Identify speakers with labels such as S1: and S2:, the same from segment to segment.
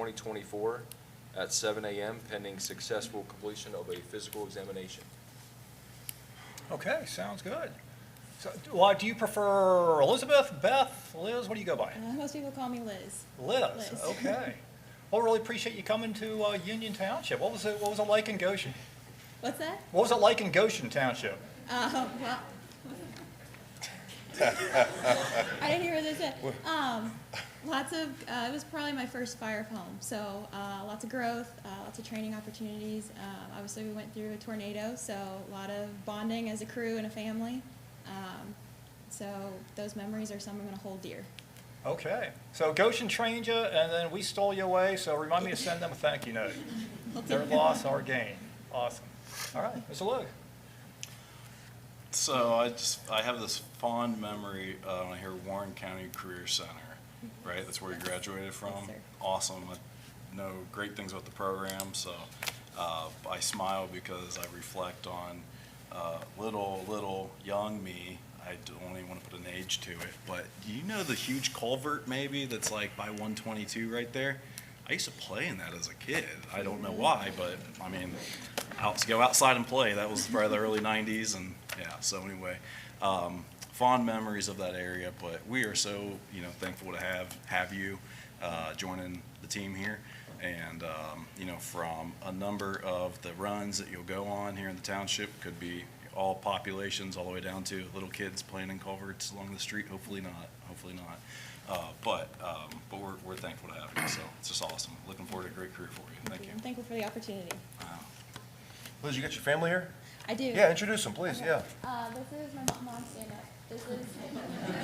S1: 2024 at 7 a.m. pending successful completion of a physical examination.
S2: Okay, sounds good. So, well, do you prefer Elizabeth, Beth, Liz? What do you go by?
S3: Uh, Most people call me Liz.
S2: Liz.
S3: Liz.
S2: Okay. Well, really appreciate you coming to uh, Union Township. What was it? What was it like in Goshen?
S3: What's that?
S2: What was it like in Goshen Township?
S3: Uh, well. I didn't hear what they said. Um, lots of, uh, it was probably my first fire home, so, uh, lots of growth, uh, lots of training opportunities. Uh, obviously, we went through a tornado, so a lot of bonding as a crew and a family. Um, so those memories are some I'm gonna hold dear.
S2: Okay. So Goshen trained you, and then we stole you away. So remind me to send them a thank you note.
S3: I'll take
S2: Their
S3: it.
S2: loss, our gain. Awesome. All right, Mr. Luke.
S4: So I just, I have this fond memory, uh, when I hear Warren County Career Center, right? That's where you graduated from.
S3: Yes, sir.
S4: Awesome. I know great things about the program, so, uh, I smile because I reflect on, uh, little, little, young me. I don't even want to put an age to it, but do you know the huge culvert maybe that's like by one twenty-two right there? I used to play in that as a kid. I don't know why, but I mean, out to go outside and play. That was probably the early '90s, and yeah. So anyway, um, fond memories of that area. But we are so you know thankful to have have you uh, joining the team here, and um, you know from a number of the runs that you'll go on here in the township could be all populations, all the way down to little kids playing in culverts along the street. Hopefully not. Hopefully not. Uh, but um, but we're, we're thankful to have you. So it's just awesome. Looking forward to a great career for you. Thank you.
S3: I'm thankful for the opportunity.
S5: Liz, you got your family here?
S3: I do.
S5: Yeah, introduce them, please,
S3: Okay.
S5: yeah.
S3: Uh, this is my mom, mom stand up. This is,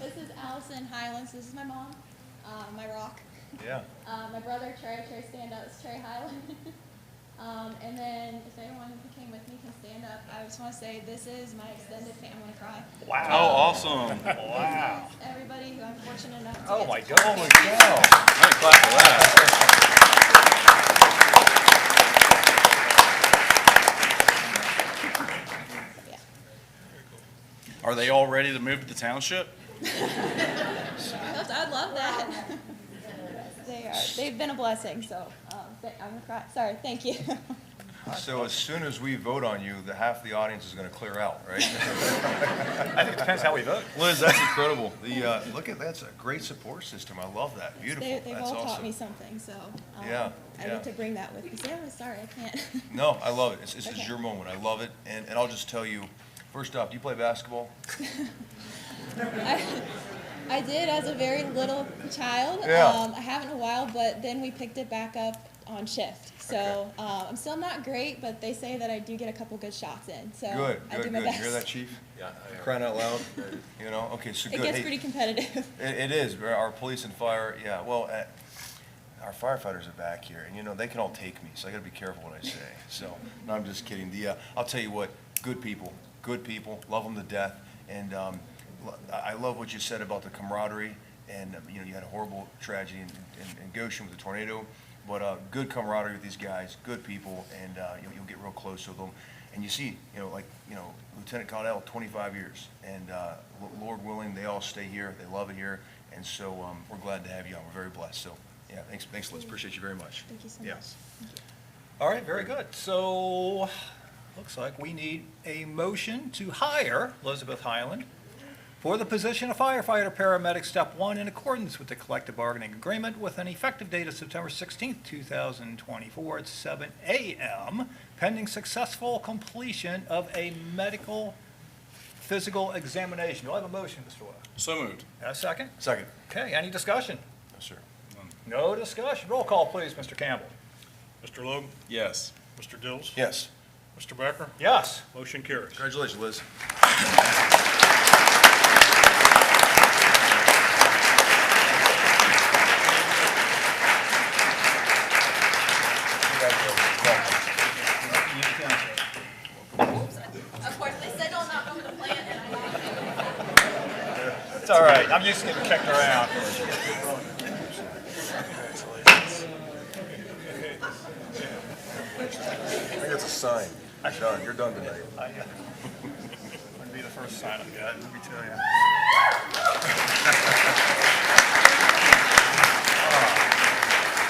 S3: this is Allison Highlands. This is my mom, uh, my rock.
S5: Yeah.
S3: Uh, my brother Trey, Trey stand up. It's Trey Highland. um, and then if anyone who came with me can stand up, I just want to say this is my extended family. I'm gonna cry.
S4: Wow. awesome.
S2: Wow.
S3: Everybody who I'm fortunate enough to
S2: Oh
S3: get
S2: my
S3: to-
S2: goodness. Wow.
S4: All right, clap for that.
S3: Yeah.
S4: Are they all ready to move to the township?
S3: I'd- I'd love that. they are. They've been a blessing. So um, th- I'm gonna cry. Sorry. Thank you.
S5: So as soon as we vote on you, the half the audience is going to clear out, right?
S2: I think it depends how we vote.
S5: Liz, that's incredible. The, uh, look at, that's a great support system. I love that. Beautiful.
S3: They,
S5: That's
S3: they've all taught me
S5: awesome.
S3: something, so. um,
S5: Yeah,
S3: I
S5: yeah.
S3: get to bring that with me. Say, "Oh, sorry, I can't.
S5: No, I love it. This this
S3: Okay.
S5: is your moment. I love it. And, and I'll just tell you, first off, do you play basketball?
S3: I did as a very little child.
S5: Yeah.
S3: Um, I haven't in a while, but then we picked it back up on shift. So, uh, I'm still not great, but they say that I do get a couple good shots in, so.
S5: Good,
S3: I do
S5: good,
S3: my
S5: good. You hear that,
S3: best.
S5: chief?
S1: Yeah, I-
S5: Crying out loud, you know? Okay, so
S3: It
S5: good.
S3: gets
S5: Hey,
S3: pretty competitive.
S5: It, it is. Our police and fire, yeah, well, uh, our firefighters are back here, and you know, they can all take me, so I gotta be careful what I say. So, no, I'm just kidding. The, uh, I'll tell you what, good people, good people, love them to death. And, um, lo- I I love what you said about the camaraderie, and, um, you know, you had a horrible tragedy in, in- in Goshen with the tornado, but, uh, good camaraderie with these guys, good people, and, uh, you'll, you'll get real close with them. And you see, you know, like, you know, Lieutenant Caudell, twenty-five years, and, uh, Lo- Lord willing, they all stay here, they love it here, and so, um, we're glad to have you on, we're very blessed, so, yeah, thanks, thanks, Liz, appreciate you very much.
S3: Thank you so
S5: Yeah.
S3: much.
S2: All right, very good. So, looks like we need a motion to hire Elizabeth Highland for the position of firefighter paramedic step one in accordance with the collective bargaining agreement with an effective date of September 16th, 2024 at 7 a.m. pending successful completion of a medical physical examination. Do I have a motion, Mr. Webb?
S4: So moved.
S2: A second?
S5: Second.
S2: Okay, any discussion?
S5: No, sir.
S2: No discussion. Roll call, please, Mr. Campbell.
S6: Mr. Logue,
S4: Yes.
S6: Mr. Dills?
S5: Yes.
S6: Mr. Becker?
S2: Yes.
S6: Motion carries.
S5: Congratulations, Liz.
S2: You can, sir.
S7: Of course, they said don't knock over the plant, and I
S2: It's all right. I'm used to getting kicked around.
S5: I think that's a sign.
S2: uh,
S5: Sean, you're done tonight.
S2: Wouldn't be the first sign I've gotten, let me tell you.